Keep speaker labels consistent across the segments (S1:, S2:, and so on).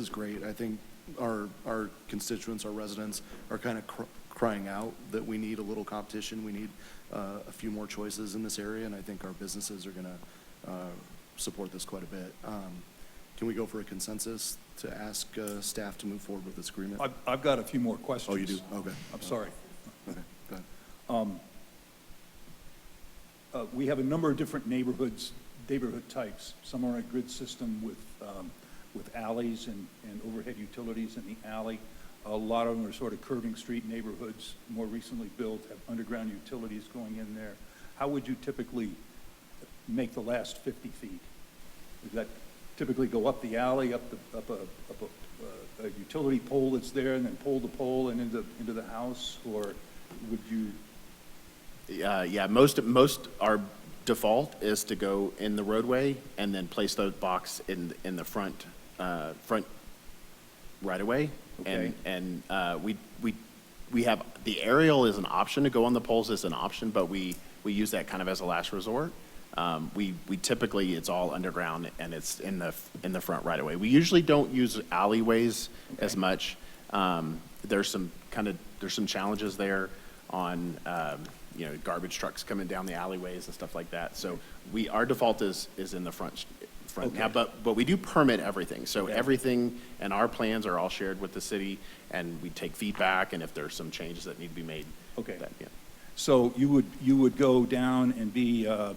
S1: is great. I think our, our constituents, our residents are kind of cr- crying out that we need a little competition. We need uh, a few more choices in this area, and I think our businesses are going to support this quite a bit. Um, Can we go for a consensus to ask uh, staff to move forward with this agreement?
S2: I've, I've got a few more questions.
S1: Oh, you do? Okay.
S2: I'm sorry.
S1: Okay, go ahead.
S2: Uh, We have a number of different neighborhoods, neighborhood types. Some are in a grid system with, um, with alleys and, and overhead utilities in the alley. A lot of them are sort of curving street neighborhoods, more recently built, have underground utilities going in there. How would you typically make the last 50 feet? Does that typically go up the alley, up the, up a, up a, uh, a utility pole that's there, and then pole to pole and into, into the house? Or would you
S3: Uh, yeah, most, most, our default is to go in the roadway and then place those box in, in the front, uh, front right away.
S2: Okay.
S3: And, and, uh, we, we, we have, the aerial is an option to go on the poles is an option, but we, we use that kind of as a last resort. Um, we, we typically, it's all underground and it's in the, in the front right away. We usually don't use alleyways as
S2: Okay.
S3: much. Um, there's some kind of, there's some challenges there on, um, you know, garbage trucks coming down the alleyways and stuff like that. So we, our default is, is in the front, front now,
S2: Okay.
S3: but, but we do permit everything. So
S2: Okay.
S3: everything and our plans are all shared with the city and we take feedback and if there's some changes that need to be made.
S2: Okay.
S3: that- yeah.
S2: So you would, you would go down and be, uh,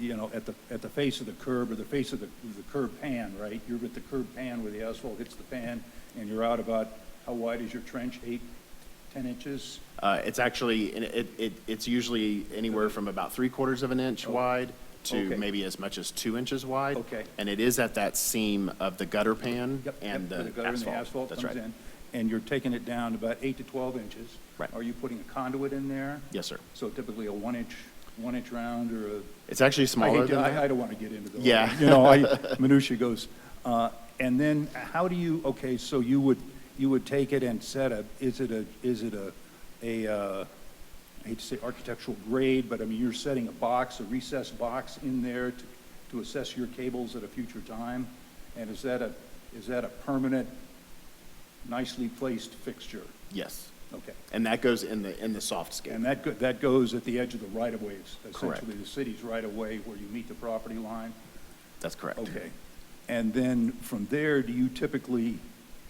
S2: you know, at the, at the face of the curb or the face of the, the curb pan, right? You're at the curb pan where the asphalt hits the pan and you're out about, how wide is your trench? Eight, 10 inches?
S3: Uh, it's actually, and it, it, it's usually anywhere from about three quarters of an inch wide
S2: Oh, Okay.
S3: to maybe as much as two inches wide.
S2: Okay.
S3: And it is at that seam of the gutter pan
S2: Yep, yep,
S3: and
S2: where
S3: the
S2: gutter and the
S3: asphalt. That's
S2: comes
S3: right.
S2: in, And you're taking it down about eight to 12 inches?
S3: Right.
S2: Are you putting a conduit in there?
S3: Yes, sir.
S2: So typically a one inch, one inch round or a
S3: It's actually
S2: I
S3: smaller
S2: hate to,
S3: than
S2: I, I
S3: that.
S2: don't want to get into those.
S3: Yeah.
S2: You know, I, minutia goes, uh, and then how do you, okay, so you would, you would take it and set a, is it a, is it a, a, uh, I hate to say architectural grade, but I mean, you're setting a box, a recessed box in there to, to assess your cables at a future time? And is that a, is that a permanent, nicely placed fixture?
S3: Yes.
S2: Okay.
S3: And that goes in the, in the soft
S2: And
S3: scape.
S2: that, go- that goes at the edge of the right-of-ways,
S3: Correct.
S2: essentially the city's right-of-way where you meet the property line?
S3: That's correct.
S2: Okay. And then from there, do you typically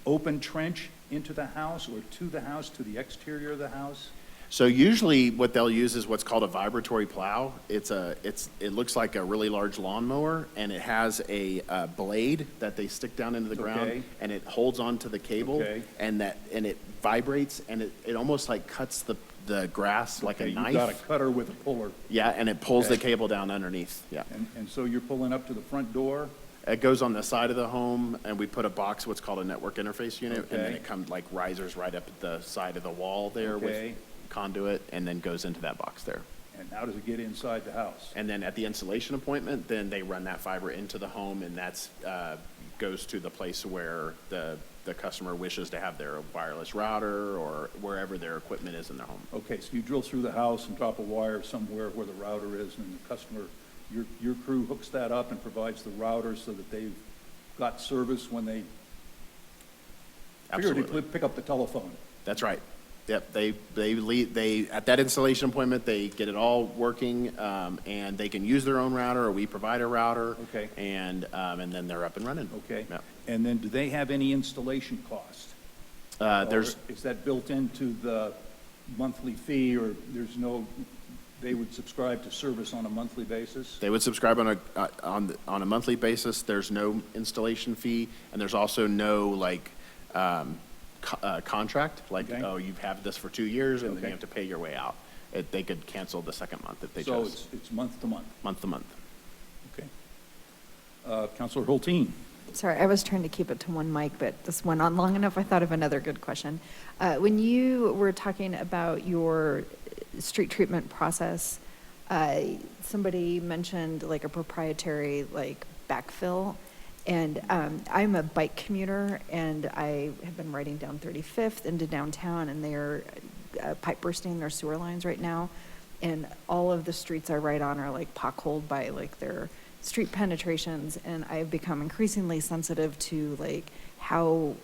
S2: open trench into the house or to the house, to the exterior of the house?
S3: So usually what they'll use is what's called a vibratory plow. It's a, it's, it looks like a really large lawnmower and it has a uh, blade that they stick down into the
S2: Okay.
S3: ground and it holds onto the cable
S2: Okay.
S3: and that, and it vibrates and it, it almost like cuts the, the grass like a
S2: Okay, You've got a
S3: knife.
S2: cutter with a puller,
S3: Yeah, and it pulls the
S2: Okay.
S3: cable down underneath, yeah.
S2: and, and so you're pulling up to the front door?
S3: It goes on the side of the home and we put a box, what's called a network interface unit. And then
S2: Okay.
S3: it comes like risers right up at the side of the wall there with
S2: Okay.
S3: conduit and then goes into that box there.
S2: And how does it get inside the house?
S3: And then at the installation appointment, then they run that fiber into the home, and that's, uh, goes to the place where the, the customer wishes to have their wireless router or wherever their equipment is in their home.
S2: Okay, so you drill through the house and drop a wire somewhere where the router is, and the customer, your, your crew hooks that up and provides the router so that they've got service when they figuratively
S3: Absolutely.
S2: pick up the telephone.
S3: That's right. Yep, they, they lead, they, at that installation appointment, they get it all working, um, and they can use their own router, or we provide a router.
S2: Okay.
S3: And, um, and then they're up and running.
S2: Okay?
S3: Yep.
S2: And then do they have any installation cost?
S3: Uh, there's,
S2: Or Is that built into the monthly fee, or there's no, they would subscribe to service on a monthly basis?
S3: They would subscribe on a, uh, on, the- on a monthly basis. There's no installation fee, and there's also no, like, um, co- uh, contract, like,
S2: Okay.
S3: oh, you've had this for two years, and then
S2: Okay.
S3: you have to pay your way out. It, they could cancel the second month if they
S2: So
S3: chose,
S2: it's, it's month to month,
S3: month to month.
S2: okay. Uh, Counselor Hulteen?
S4: Sorry, I was trying to keep it to one mic, but this went on long enough. I thought of another good question. Uh, When you were talking about your uh, street treatment process, uh, somebody mentioned like a proprietary like backfill. And um, I'm a bike commuter and I have been riding down 35th into downtown and they're uh, pipe bursting their sewer lines right now. And all of the streets I ride on are like potholed by like their street penetrations. And I've become increasingly sensitive to like how